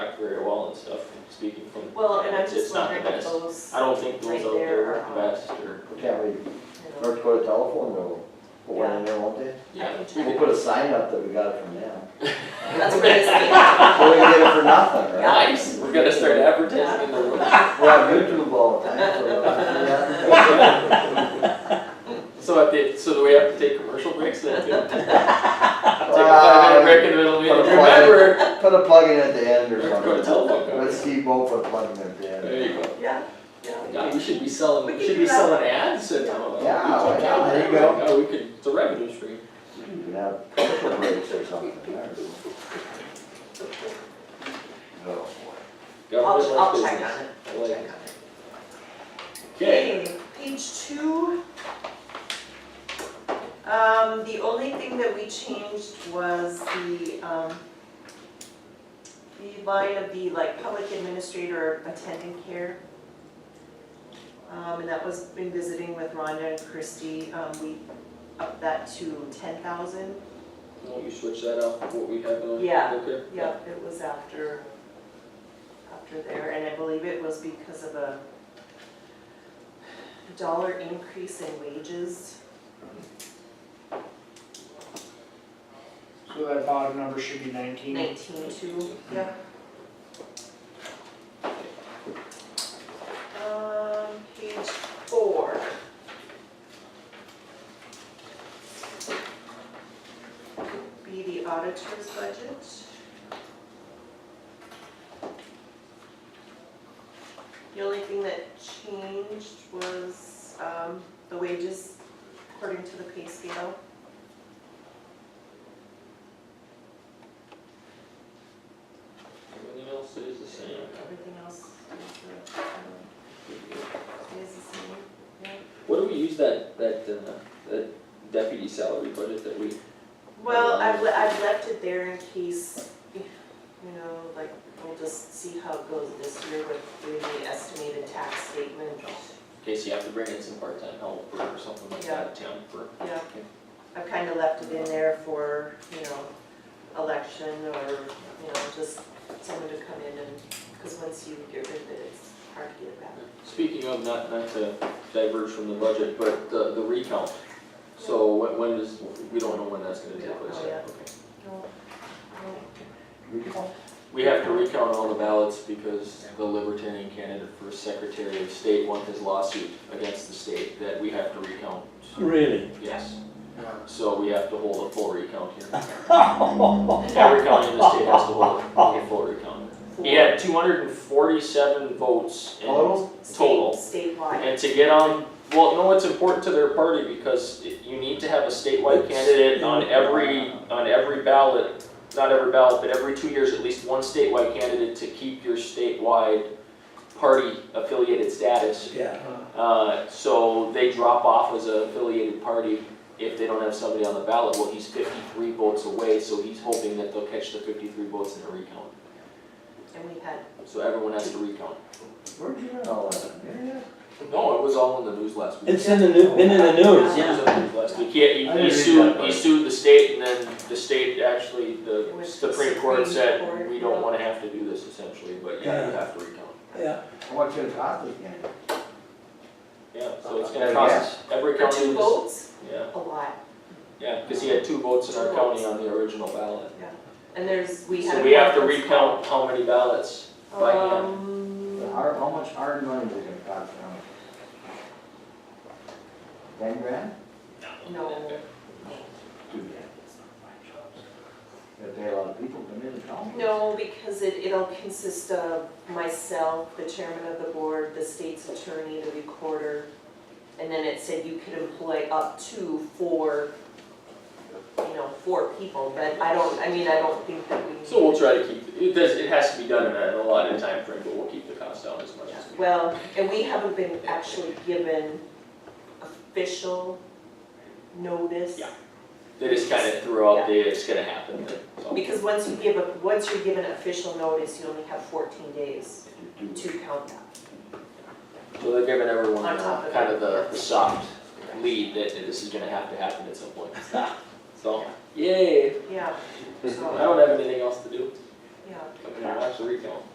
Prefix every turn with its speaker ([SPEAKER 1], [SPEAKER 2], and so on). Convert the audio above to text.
[SPEAKER 1] and stuff, from speaking from.
[SPEAKER 2] Well, and I'm
[SPEAKER 1] it's-
[SPEAKER 2] just
[SPEAKER 1] it's not the
[SPEAKER 2] wondering if
[SPEAKER 1] best.
[SPEAKER 2] those,
[SPEAKER 1] I don't think those
[SPEAKER 2] right
[SPEAKER 1] out
[SPEAKER 2] there
[SPEAKER 1] there work
[SPEAKER 2] are- um,
[SPEAKER 1] the best, or,
[SPEAKER 3] Can't we,
[SPEAKER 2] you know,
[SPEAKER 3] North Dakota telephone will put one in there, won't they?
[SPEAKER 1] yeah.
[SPEAKER 2] can
[SPEAKER 3] We'll
[SPEAKER 1] we
[SPEAKER 3] put a sign up that we got it from them.
[SPEAKER 2] that's what it's saying.
[SPEAKER 3] So we can get it for nothing,
[SPEAKER 1] did-
[SPEAKER 3] right?
[SPEAKER 1] Nice, we're gonna start advertising in the room.
[SPEAKER 3] We're on YouTube all the time, so. yeah.
[SPEAKER 1] So at the, so do we have to take commercial breaks then? too? Take a five minute break in the middle, we
[SPEAKER 3] Put a plug-
[SPEAKER 1] remember,
[SPEAKER 3] Put a plug in at the end or
[SPEAKER 1] North Dakota
[SPEAKER 3] something.
[SPEAKER 1] telephone
[SPEAKER 3] Let
[SPEAKER 1] company.
[SPEAKER 3] Steve Bo put a plug in at the end.
[SPEAKER 1] There you go.
[SPEAKER 2] Yeah, yeah. we
[SPEAKER 1] God,
[SPEAKER 2] can.
[SPEAKER 1] we should be selling,
[SPEAKER 2] We
[SPEAKER 1] we
[SPEAKER 2] could
[SPEAKER 1] should
[SPEAKER 2] do
[SPEAKER 1] be
[SPEAKER 2] that.
[SPEAKER 1] selling ads at town. hall.
[SPEAKER 3] Yeah,
[SPEAKER 1] We could-
[SPEAKER 3] yeah, there you
[SPEAKER 1] yeah,
[SPEAKER 3] go.
[SPEAKER 1] We could, it's a revenue stream.
[SPEAKER 3] You can have commercial breaks or something. there. So,
[SPEAKER 2] I'll,
[SPEAKER 1] Government
[SPEAKER 2] I'll
[SPEAKER 1] business.
[SPEAKER 2] check on it,
[SPEAKER 1] I
[SPEAKER 2] I'll
[SPEAKER 1] like
[SPEAKER 2] check
[SPEAKER 1] it.
[SPEAKER 2] on it.
[SPEAKER 1] Okay,
[SPEAKER 2] Okay, page two. Um, the only thing that we changed was the, um, the line of the like public administrator attendant care. Um, and that was in visiting with Rhonda and Christie, um, we upped that to ten thousand.
[SPEAKER 1] won't you switch that out, what we have on?
[SPEAKER 2] Yeah,
[SPEAKER 1] Okay.
[SPEAKER 2] Yep, it was after, after there, and I believe it was because of a dollar increase in wages.
[SPEAKER 4] So that bottom number should be nineteen.
[SPEAKER 2] Nineteen two, yeah. Um, page four. Be the auditor's budget. The only thing that changed was, um, the wages according to the pay scale.
[SPEAKER 1] Everything else is the same.
[SPEAKER 2] Everything else is the, um, is the same.
[SPEAKER 1] What do we use that, that, uh, that deputy salary budget that we,
[SPEAKER 2] Well, I've, le- I've left it there in case, you know, like, we'll just see how it goes this year with doing the estimated tax statement.
[SPEAKER 1] in case you have to bring in some part-time help or something like that, temp or?
[SPEAKER 2] Yeah, I've kind of left it in there for, you know, election or, you know, just someone to come in and, because once you get rid of it, it's hard to get it back.
[SPEAKER 1] Speaking of, not, not to diverge from the budget, but the, the recount. So when, when does, we don't know when that's gonna
[SPEAKER 2] We
[SPEAKER 1] take
[SPEAKER 2] don't
[SPEAKER 1] place
[SPEAKER 2] know
[SPEAKER 1] yet,
[SPEAKER 2] yet.
[SPEAKER 1] okay.
[SPEAKER 2] No, no.
[SPEAKER 1] We have to recount all the ballots because the Libertarian candidate for Secretary of State won his lawsuit against the state that we have to recount,
[SPEAKER 5] Really?
[SPEAKER 1] yes. So we have to hold a full recount here.
[SPEAKER 5] Every
[SPEAKER 1] Every county in the state has to hold a full recount. He had two hundred and forty-seven votes and-
[SPEAKER 3] Total?
[SPEAKER 1] Total.
[SPEAKER 2] State, statewide.
[SPEAKER 1] And to get on, well, no, it's important to their party because you need to have a statewide candidate on every, on every ballot. Not every ballot, but every two years, at least one statewide candidate to keep your statewide party affiliated status.
[SPEAKER 5] Yeah.
[SPEAKER 1] Uh, so they drop off as an affiliated party if they don't have somebody on the ballot. Well, he's fifty-three votes away, so he's hoping that they'll catch the fifty-three votes in a recount.
[SPEAKER 2] And we had
[SPEAKER 1] So everyone has to recount.
[SPEAKER 3] Where'd you learn all that? Mary?
[SPEAKER 1] No, it was all in the news last week.
[SPEAKER 5] It's in the new, been in the news,
[SPEAKER 1] He
[SPEAKER 5] yeah.
[SPEAKER 3] I
[SPEAKER 1] he
[SPEAKER 3] didn't read
[SPEAKER 1] sued,
[SPEAKER 3] that
[SPEAKER 1] he
[SPEAKER 3] part.
[SPEAKER 1] sued the state and then the state actually, the
[SPEAKER 2] It was
[SPEAKER 1] Supreme Court
[SPEAKER 2] Supreme
[SPEAKER 1] said,
[SPEAKER 2] Court,
[SPEAKER 1] we don't
[SPEAKER 2] yeah.
[SPEAKER 1] wanna have to do this essentially, but yeah, you
[SPEAKER 5] Yeah.
[SPEAKER 1] have to recount.
[SPEAKER 5] Yeah,
[SPEAKER 3] How much it cost this game?
[SPEAKER 1] Yeah, so it's
[SPEAKER 3] Yeah,
[SPEAKER 1] gonna cost every
[SPEAKER 2] For
[SPEAKER 1] county.
[SPEAKER 2] two
[SPEAKER 1] was-
[SPEAKER 2] votes,
[SPEAKER 1] Yeah,
[SPEAKER 2] a lot,
[SPEAKER 1] yeah, cause he had two votes in our
[SPEAKER 2] Two
[SPEAKER 1] county on the original ballot.
[SPEAKER 2] and there's, we had.
[SPEAKER 1] So
[SPEAKER 2] a
[SPEAKER 1] we have to
[SPEAKER 2] conference
[SPEAKER 1] recount how many ballots.
[SPEAKER 2] call.
[SPEAKER 1] by hand.
[SPEAKER 2] Um,
[SPEAKER 3] The hard- How much hard money is it gonna cost now? Ten grand?
[SPEAKER 2] no,
[SPEAKER 3] Two grand. Gotta pay a lot of people to come in and count.
[SPEAKER 2] no, because it, it'll consist of myself, the chairman of the board, the state's attorney, the recorder. And then it said you could employ up to four, you know, four people, but I don't, I mean, I don't think that we.
[SPEAKER 1] So we'll try to keep, it does, it has to be done in a, in a lot of time frame, but we'll keep the cost down as much as we can.
[SPEAKER 2] Well, and we haven't been actually given official notice.
[SPEAKER 1] Yeah. They just kinda threw out the, it's gonna happen, so.
[SPEAKER 2] Because once you give, a once you're given official notice, you only have fourteen days
[SPEAKER 3] To do it.
[SPEAKER 2] to count that.
[SPEAKER 1] So they're giving everyone
[SPEAKER 2] On top
[SPEAKER 1] uh,
[SPEAKER 2] of
[SPEAKER 1] kind
[SPEAKER 2] it.
[SPEAKER 1] of the the soft lead that this is gonna have to happen at some point. So, yay,
[SPEAKER 2] Yeah,
[SPEAKER 1] I
[SPEAKER 2] so,
[SPEAKER 1] don't have anything else to do,
[SPEAKER 2] yeah.
[SPEAKER 1] I'm gonna watch the recount.